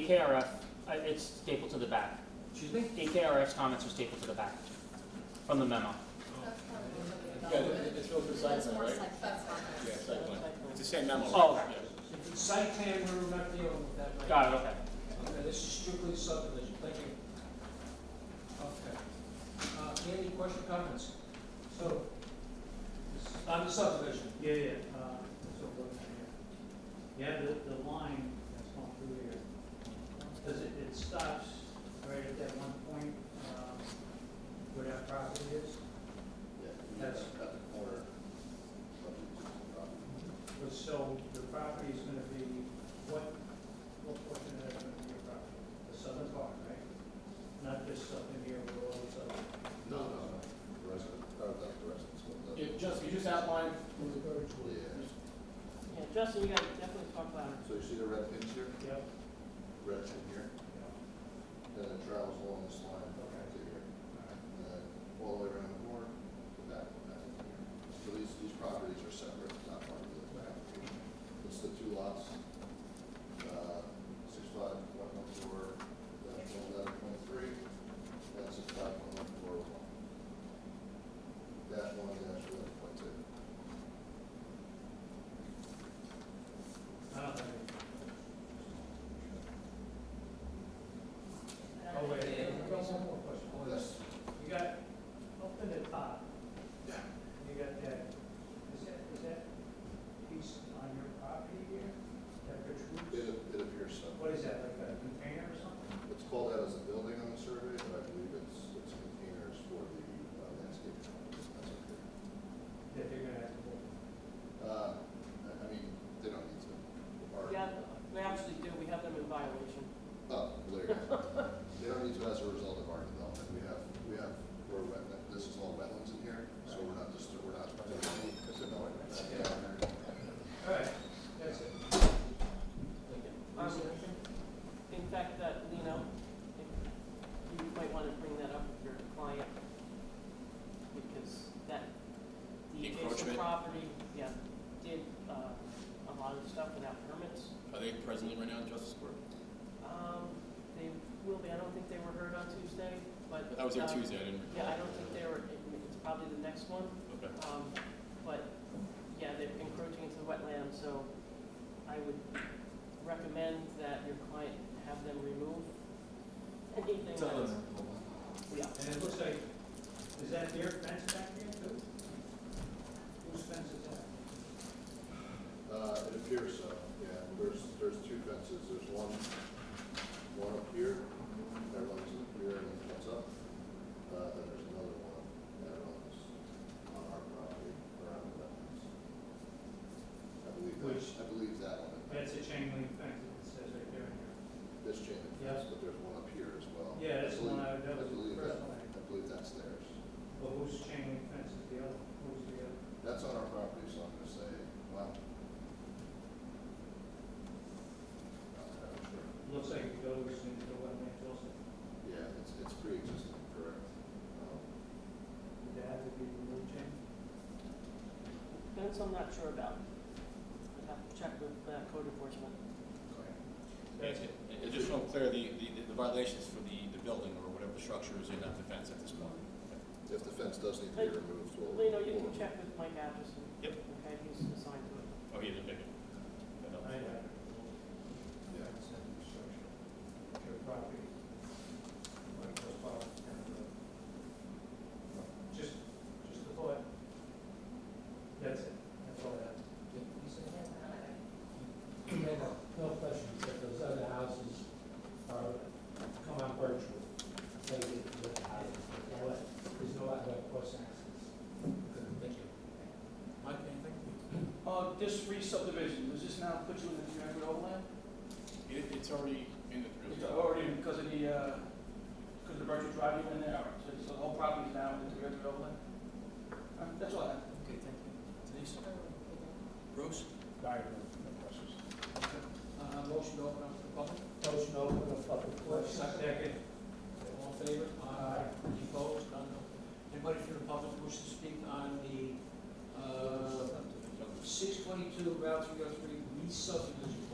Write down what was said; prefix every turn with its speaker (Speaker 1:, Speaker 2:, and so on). Speaker 1: AKRF, uh, it's stapled to the back.
Speaker 2: Excuse me?
Speaker 1: AKRF's comments are stapled to the back from the memo.
Speaker 3: That's
Speaker 4: Yeah,
Speaker 3: probably-
Speaker 4: it- it's built for site
Speaker 3: That's
Speaker 4: plan,
Speaker 3: more
Speaker 4: right?
Speaker 3: site, that's
Speaker 4: Yeah,
Speaker 3: not.
Speaker 4: site plan. It's the same memo.
Speaker 1: Oh.
Speaker 4: Yeah.
Speaker 2: If it's site plan, we're not dealing with that right now.
Speaker 1: Got it, okay.
Speaker 2: Okay, this is strictly subdivision, thank you. Okay. Uh, any question, comments? So, this- on the subdivision,
Speaker 5: Yeah, yeah, uh, so uh, what, yeah. yeah, the, the line that's going through here, does it, it stops right at that one point, um, where that property is?
Speaker 6: Yeah,
Speaker 5: That's-
Speaker 6: that's at the corner. of the property.
Speaker 5: But So the property is gonna be, what, what portion of that is gonna be your property? The southern part, right? Not just up in here where all this other.
Speaker 6: No, no, no, the rest of, uh, not the rest of the.
Speaker 4: Yeah, Justin, you just outlined,
Speaker 6: Yeah,
Speaker 7: Yeah, Justin, you gotta definitely talk louder.
Speaker 6: so you see the red pins here,
Speaker 5: Yep.
Speaker 6: red pin here,
Speaker 5: Yeah.
Speaker 6: then it travels along this line to here, and then uh, all the way around the corner, to back, back to here. So these, these properties are separate, it's not part of the application. It's the two lots, uh, six five one one four dash one eleven point three, and six five one one four one. Dash one dash eleven point two.
Speaker 5: I don't have any.
Speaker 3: I don't
Speaker 5: Oh, wait,
Speaker 3: think
Speaker 5: yeah,
Speaker 3: it
Speaker 5: we
Speaker 3: is.
Speaker 5: got one more question. Hold on.
Speaker 6: Oh, Yes.
Speaker 5: You got, up in the top,
Speaker 6: Yeah.
Speaker 5: You got that, is that, is that piece on your property here, that
Speaker 6: It,
Speaker 5: protrudes?
Speaker 6: it appears so.
Speaker 5: What is that, like a container or something?
Speaker 6: It's called out as a building on the survey, but I believe it's, it's containers for the uh, landscape. companies. That's okay.
Speaker 5: That they're gonna have to build?
Speaker 6: Uh, I I mean, they don't need to. Or-
Speaker 7: Yeah, we actually do, we have them in violation.
Speaker 6: Oh, later. They don't need to as a result of our development. We have, we have, we're wet, this is all wetlands in here, so we're not just, we're not. uh,
Speaker 2: all right, that's it.
Speaker 7: Um, In fact, that, Lino, if you might wanna bring that up with your client, because that, the adjacent
Speaker 4: Encroachment.
Speaker 7: property, yeah, did, uh, a lot of stuff without permits.
Speaker 4: are they presently right now in Justice Court?
Speaker 7: Um, they will be, I don't think they were heard on Tuesday, but.
Speaker 4: I was there
Speaker 7: uh,
Speaker 4: Tuesday, I didn't recall.
Speaker 7: Yeah, I don't think they were, it's probably the next one.
Speaker 4: Okay.
Speaker 7: Um, but, yeah, they're encroaching into the wetland, so I would recommend that your client have them remove anything that's. Yeah,
Speaker 5: And it looks like, is that their fence back there too? Whose fence is that?
Speaker 6: Uh, it appears so, yeah. There's, there's two fences. There's one, one up here, that runs up here and then comes up. Uh, then there's another one that runs on our property around the wetlands. I believe that,
Speaker 5: Which-
Speaker 6: I believe that one.
Speaker 5: That's a chain link fence, it says right there.
Speaker 6: This chain of
Speaker 5: Yeah.
Speaker 6: fence, but there's one up here as well.
Speaker 5: Yeah, that's the one I,
Speaker 6: I
Speaker 5: that was
Speaker 6: believe
Speaker 5: the
Speaker 6: that,
Speaker 5: first one. I-
Speaker 6: I believe that's theirs.
Speaker 5: But whose chain link fence is the other, who's the other?
Speaker 6: That's on our property, so I'm gonna say, wow. Not entirely sure.
Speaker 5: Looks like it goes into the wetland also.
Speaker 6: Yeah, it's, it's pre-existing, correct. Um,
Speaker 5: Would that have to be removed, Jim?
Speaker 7: that's I'm not sure about. I'd have to check with uh, code enforcement.
Speaker 6: okay.
Speaker 4: Additional clear, the, the- the violations for the, the building or whatever the structure is in that defense at this point.
Speaker 6: If the fence does need to be removed, we'll.
Speaker 7: Lino, you
Speaker 6: we'll-
Speaker 7: can check with Mike Atchison.
Speaker 4: Yep.
Speaker 7: Okay, he's assigned to it.
Speaker 4: Oh, he didn't pick it. That helps.
Speaker 5: I have it removed.
Speaker 6: Yeah.
Speaker 5: Just, just the thought. That's it, that's all that.
Speaker 2: No question, except those other houses are, come on virtual, they get the high, there's no other cross access.
Speaker 8: Thank you. Mike, anything?
Speaker 2: Uh, this re-subdivision, does this now put you in the geographic overlap?
Speaker 4: It, it's already in the.
Speaker 2: It's already because of the, uh, because of the virtual drive you in there, all right, so it's- the whole property is now in the geographic overlap? All right, That's all I have.
Speaker 8: Okay, thank you. Denise? Bruce?
Speaker 2: Uh, motion to open up the public,
Speaker 5: Motion to open the public Second.
Speaker 8: All in favor? Any opposed? None? Anybody from the public who wishes to speak on uh, the six twenty-two Route three oh three re-subdivision?